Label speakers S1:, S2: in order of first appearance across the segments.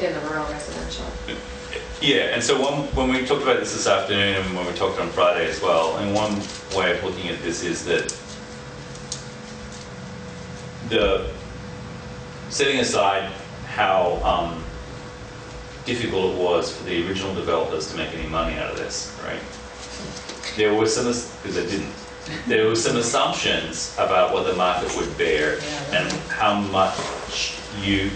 S1: in the rural residential.
S2: Yeah, and so one, when we talked about this this afternoon and when we talked on Friday as well, and one way of looking at this is that the, setting aside how um, difficult it was for the original developers to make any money out of this, right? There were some, because they didn't, there were some assumptions about what the market would bear
S3: Yeah,
S2: and how much you,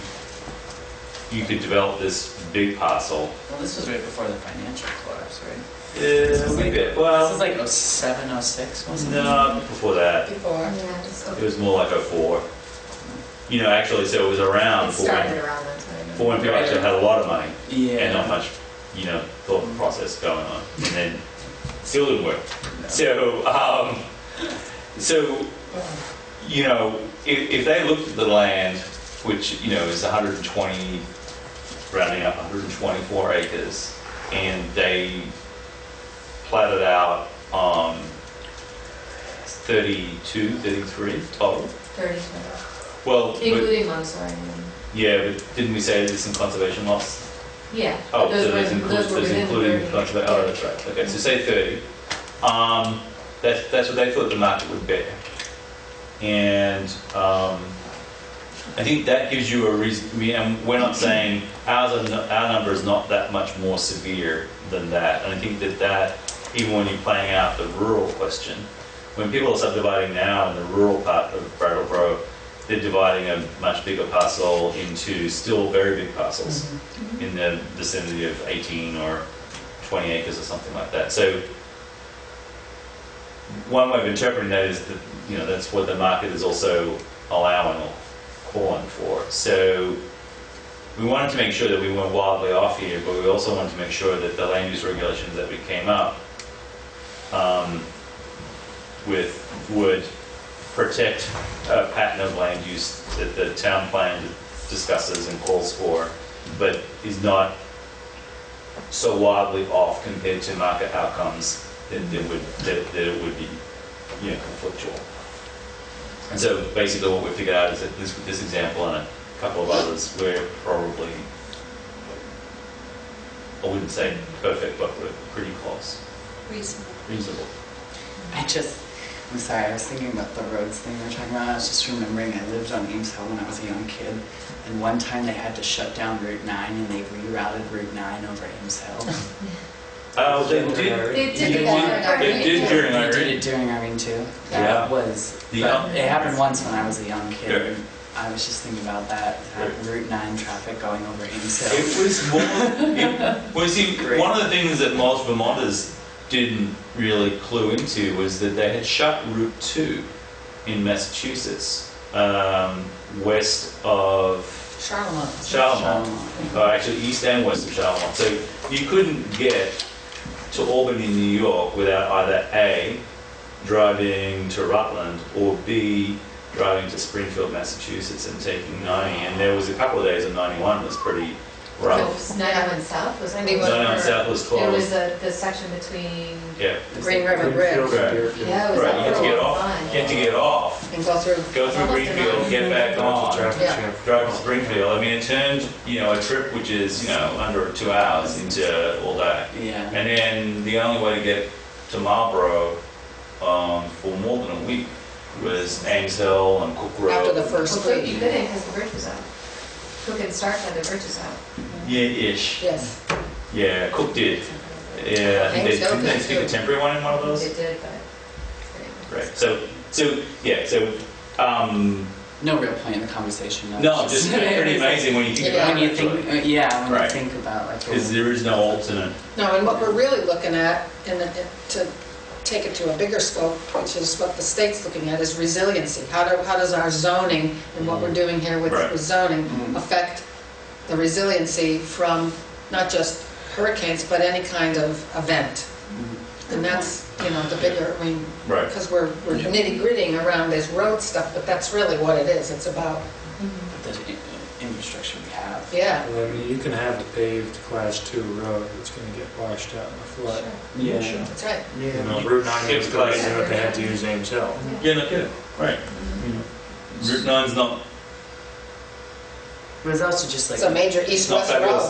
S2: you could develop this big parcel
S3: Well, this was right before the financial collapse, right?
S2: this
S3: This was like-
S4: Uh,
S3: This is
S2: Uh, well,
S3: like 07, 06, wasn't it?
S2: no, before that,
S5: Before.
S1: Yeah, it's-
S2: it was more like a four. You know, actually, so it was around
S1: It
S2: for when,
S1: started around that time.
S2: for when people actually had a lot of money
S3: Yeah.
S2: and not much, you know, thought process going on, and then still didn't work.
S3: No.
S2: So, um, so, you know, if, if they looked at the land, which, you know, is 120, rounding up 124 acres, and they platted out, um, 32, 33 total.
S1: Thirty,
S2: Well, but,
S1: including Montessori. and-
S2: yeah, but didn't we say there's some conservation loss?
S1: Yeah.
S2: Oh,
S1: those
S2: so
S1: were-
S2: there's included,
S1: those were
S2: there's
S1: within
S2: included,
S1: 30.
S2: like, the- oh, that's right, okay, so say thirty. Um, that's, that's what they thought the market would bear. And, um, I think that gives you a reason, I mean, and we're not saying, ours, are no- our number is not that much more severe than that. And I think that that, even when you're playing out the rural question, when people are subdividing now in the rural part of Brattleboro, they're dividing a much bigger parcel into still very big parcels in the vicinity of 18 or 20 acres or something like that. So one way of interpreting that is that, you know, that's what the market is also allowing or calling for. So we wanted to make sure that we weren't wildly off here, but we also wanted to make sure that the land use regulations that we came up um, with would protect a pattern of land use that the town plan discusses and calls for, but is not so wildly off compared to market outcomes that that would, that that it would be, you know, conflictual. And so basically what we figured out is that this, with this example and a couple of others, we're probably, I wouldn't say perfect, but we're pretty close,
S5: Reasonable.
S2: reasonable.
S3: I just, I'm sorry, I was thinking about the roads thing we were talking about. I was just remembering I lived on Ames Hill when I was a young kid. And one time they had to shut down Route 9 and they rerouted Route 9 over Ames Hill.
S2: Uh, they did,
S1: They
S3: You
S1: did it
S3: did
S1: during
S3: it.
S1: our
S2: they did during
S3: They did
S2: Irene.
S3: it during Irene too.
S2: Yeah.
S3: That was,
S2: The-
S3: but it happened once when I was a young
S2: Yeah.
S3: kid. and I was just thinking about that, that Route 9 traffic going over Ames Hill.
S2: It was more, it, well, see,
S3: Great.
S2: one of the things that most Vermonters didn't really clue into was that they had shut Route 2 in Massachusetts, um, west of
S5: Charlotte.
S2: Charlemont, or actually east and west of Charlemont. So you couldn't get to Albany, New York without either A, driving to Rutland, or B, driving to Springfield, Massachusetts and taking 90. And there was a couple of days in 91 was pretty
S1: So
S2: rough.
S1: it's 91 South was.
S5: Ninety
S1: closed.
S5: one.
S2: 91 South was
S1: It was
S2: closed.
S1: the, the section between,
S2: Yeah,
S5: Green River
S4: Greenfield
S5: Bridge.
S4: and Deerfield.
S1: yeah, it was
S2: right, you
S1: that
S2: had to get
S1: rural
S2: off,
S1: line.
S2: you had to get off,
S5: And go through.
S2: go through
S1: Almost an
S2: Greenfield, get back
S4: That's a
S2: on.
S4: traffic
S5: Yeah.
S4: jam.
S2: driving to Springfield, I mean, it turned, you know, a trip which is, you know, under two hours into all day.
S3: Yeah.
S2: And then the only way to get to Marlborough um, for more than a week was Ames Hill and Cook Road.
S5: After the
S1: Well,
S5: first
S1: Cook you
S5: week.
S1: couldn't because the bridge was out. Cook and Stark had the bridges out.
S2: Yeah, ish.
S5: Yes.
S2: Yeah, Cook did. Yeah, I think they,
S5: Ames Hill
S2: didn't they
S5: did
S2: stick a
S5: too.
S2: temporary one in one of
S1: They
S2: those?
S1: did, but.
S2: Right. So, so yeah, so um,
S3: No real point in the conversation. I was
S2: no, just pretty amazing when you think
S5: Yeah.
S2: about
S3: When you
S2: it.
S3: think, uh, yeah, when you
S2: Right.
S3: think about like.
S2: Because there is no alternate.
S5: No, and what we're really looking at, and the- to take it to a bigger scope, which is what the state's looking at, is resiliency. How do, how does our zoning and what we're doing here with
S2: Right.
S5: with zoning
S3: Mm.
S5: affect the resiliency from not just hurricanes, but any kind of event? And that's, you know, the bigger, I mean,
S2: Right.
S5: because we're, we're
S3: Yeah.
S5: nitty grittying around this road stuff, but that's really what it is. It's about,
S1: Mm-hmm.
S3: The in- infrastructure we have.
S5: yeah,
S4: Well, I mean, you can have a paved class two road that's gonna get washed out in the flood.
S3: Yeah.
S5: that's right.
S4: You know,
S2: Yeah.
S4: Route nine
S2: It's
S4: was gonna
S2: class-
S4: do it, they had to use Ames Hill.
S2: Yeah, no kidding. Right. You know, Route 9's not.
S6: It was also just like.
S2: It's a major east-west
S5: Not fabulous.
S2: road.